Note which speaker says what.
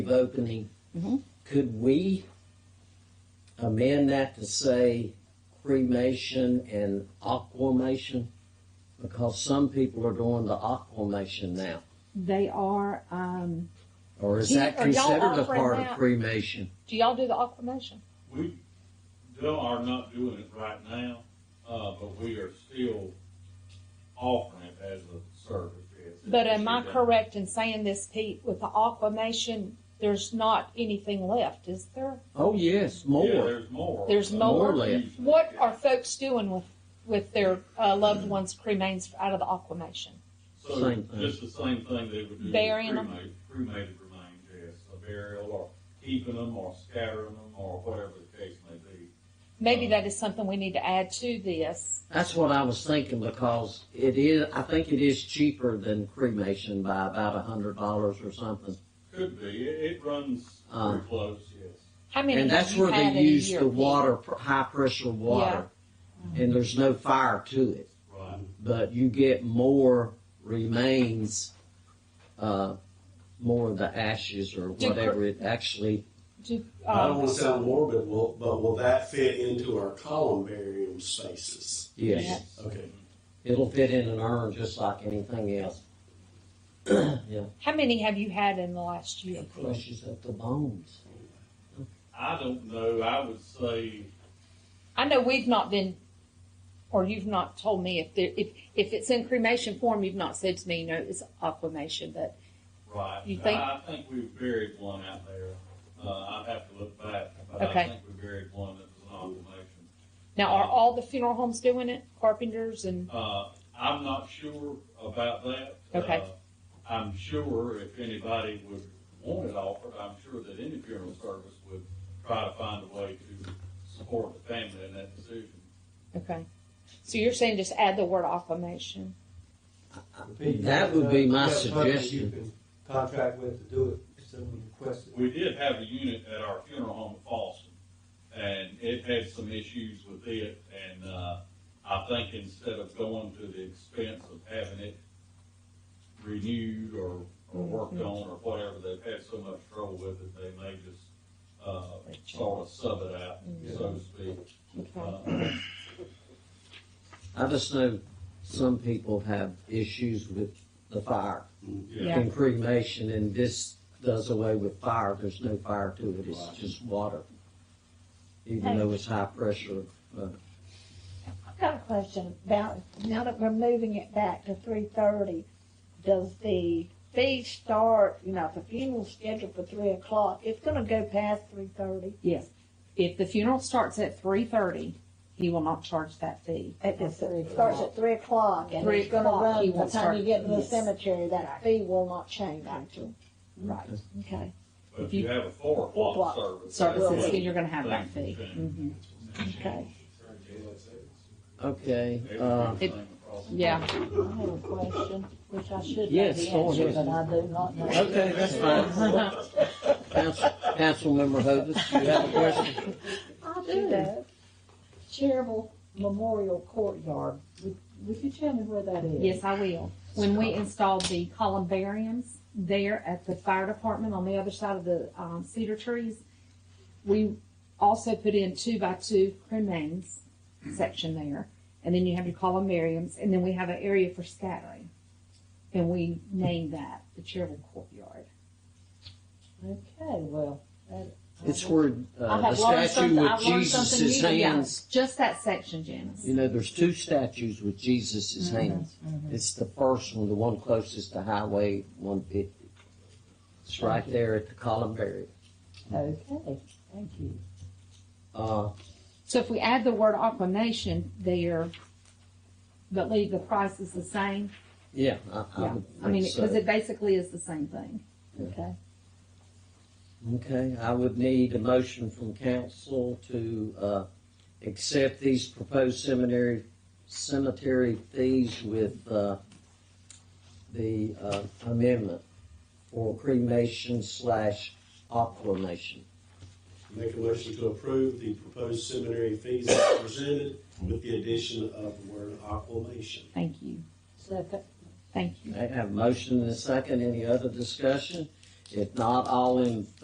Speaker 1: of opening,
Speaker 2: Mm-hmm.
Speaker 3: Mhm.
Speaker 1: could we amend that to say cremation and aquamation? Because some people are doing the aquamation now.
Speaker 3: They are, um,
Speaker 1: Or is
Speaker 2: Do you-
Speaker 1: that
Speaker 2: are y'all
Speaker 1: considered a
Speaker 2: offering
Speaker 1: part of
Speaker 2: that?
Speaker 1: cremation?
Speaker 2: Do y'all do the aquamation?
Speaker 4: We they are not doing it right now, uh, but we are still offering it as a service. yes.
Speaker 2: But am I
Speaker 4: It's been-
Speaker 2: correct in saying this, Pete, with the aquamation, there's not anything left, is there?
Speaker 1: Oh, yes,
Speaker 4: Yeah,
Speaker 1: more.
Speaker 4: there's more.
Speaker 2: There's
Speaker 4: Uh,
Speaker 2: more?
Speaker 4: usually.
Speaker 2: What are folks doing with, with their uh, loved ones' cremains out of the aquamation?
Speaker 4: So
Speaker 1: Same thing.
Speaker 4: just the same thing they would do. with
Speaker 2: Burying 'em?
Speaker 4: cremated- Cremated remains, yes, a burial or keeping them or scattering them or whatever the case may be.
Speaker 2: Maybe
Speaker 1: Uh,
Speaker 2: that is something we need to add to this.
Speaker 1: That's what I was thinking because it is, I think it is cheaper than cremation by about a hundred dollars or something.
Speaker 4: Could be, it, it runs
Speaker 1: Uh.
Speaker 4: pretty close, yes.
Speaker 2: How many
Speaker 1: And
Speaker 2: have
Speaker 1: that's
Speaker 2: you
Speaker 1: where
Speaker 2: had in
Speaker 1: they
Speaker 2: a
Speaker 1: use
Speaker 2: year,
Speaker 1: the
Speaker 2: Pete?
Speaker 1: water, pr- high pressure water. And there's no fire to it.
Speaker 4: Right.
Speaker 1: but you get more remains, uh, more of the ashes or
Speaker 2: Do-
Speaker 1: whatever it actually.
Speaker 2: Do,
Speaker 5: I don't
Speaker 2: um,
Speaker 5: want to sound morbid, will, but will that fit into our columbarium spaces?
Speaker 1: Yes,
Speaker 2: Yeah.
Speaker 5: Okay.
Speaker 1: it'll fit in an urn just like anything else. yeah,
Speaker 2: how many have you had in the last year?
Speaker 1: it flushes up the bones.
Speaker 4: I don't know, I would say
Speaker 2: I know we've not been, or you've not told me if there, if if it's in cremation form, you've not said to me, you know, it's aquamation, but
Speaker 4: Right.
Speaker 2: You think-
Speaker 4: I I think we buried one out there. Uh, I'd have to look back, but I
Speaker 2: Okay.
Speaker 4: think we buried one that was an obligation.
Speaker 2: now are all the funeral homes doing it? Carpenters and
Speaker 4: Uh, I'm not sure about that.
Speaker 2: Okay.
Speaker 4: Uh, I'm sure if anybody would want it offered, I'm sure that any funeral service would try to find a way to support the family in that decision.
Speaker 2: okay. So you're saying just add the word aquamation.
Speaker 1: That would be my
Speaker 6: Yeah, something You
Speaker 1: suggestion.
Speaker 6: can contract with to do it, if someone requests it.
Speaker 4: We did have a unit at our funeral home in Falston, and it had some issues with it, and, uh, I think instead of going to the expense of having it renewed or, or worked on or whatever, they've had so much trouble with it, they may just, uh, sort of sub it out, so to speak.
Speaker 2: Okay.
Speaker 4: Uh,
Speaker 1: I just know some people have issues with the fire
Speaker 4: yeah.
Speaker 1: in cremation, and this does away with fire. There's no fire to it. It's just water, even though it's high pressure. Uh,
Speaker 7: I've got a question about, now that we're moving it back to three thirty, does the fee start, you know, if the funeral's scheduled for three o'clock, it's gonna go past three thirty
Speaker 2: Yes. If the funeral starts at three thirty, he will not charge that fee.
Speaker 7: It just- it starts at three o'clock and
Speaker 2: Three
Speaker 7: it's gonna
Speaker 2: o'clock,
Speaker 7: run
Speaker 2: he
Speaker 7: by
Speaker 2: won't
Speaker 7: the time you
Speaker 2: start-
Speaker 7: get to the
Speaker 2: yes.
Speaker 7: cemetery, that fee will not change actually.
Speaker 2: Right.
Speaker 7: Okay.
Speaker 4: But if you have a four o'clock service.
Speaker 2: Services,
Speaker 4: that's-
Speaker 2: then you're going to have that fee.
Speaker 4: Mm-hmm.
Speaker 2: Mhm.
Speaker 7: Okay.
Speaker 1: Okay,
Speaker 4: It would be
Speaker 1: uh,
Speaker 4: the same across the
Speaker 2: Yeah.
Speaker 7: I have a question, which I should
Speaker 1: Yes, the go answer, ahead. but
Speaker 7: I do not know.
Speaker 1: okay, that's fine. Council, Councilmember Hovis, you have a question?
Speaker 7: I do know. Cherville Memorial Courtyard, would, would you tell me where that is?
Speaker 2: Yes, I will. When we installed the columbariums there at the fire department on the other side of the um, cedar trees, we also put in two by two cremains section there. And then you have your columbariums, and then we have an area for scattering. And we named that the Cherville Courtyard.
Speaker 7: Okay, well. that-
Speaker 1: It's where
Speaker 7: I
Speaker 1: uh,
Speaker 7: have
Speaker 1: the statue
Speaker 7: learned something-
Speaker 1: with
Speaker 7: I've learned something
Speaker 1: Jesus'
Speaker 7: new today.
Speaker 1: hands.
Speaker 2: Just that section, Janice.
Speaker 1: You know, there's two statues with Jesus'
Speaker 7: Mm-hmm,
Speaker 1: hands. It's the first one, the one closest to Highway 150. It's right there at the Columbarium.
Speaker 7: Okay, thank you.
Speaker 1: Uh,
Speaker 2: So if we add the word aquamation there, but leave the prices the same,
Speaker 1: yeah, I, I
Speaker 2: yeah.
Speaker 1: would
Speaker 2: I mean,
Speaker 1: think Um, so.
Speaker 2: because it basically is the same thing.
Speaker 7: Okay.
Speaker 1: Okay, I would need a motion from council to, uh, accept these proposed seminary, cemetery fees with, uh, the, uh, amendment for cremation slash aquamation.
Speaker 5: Make a motion to approve the proposed seminary fees as presented with the addition of the word aquamation.
Speaker 2: Thank you.
Speaker 7: Second.
Speaker 2: Thank you.
Speaker 1: I have a motion and a second, any other discussion? If not, all in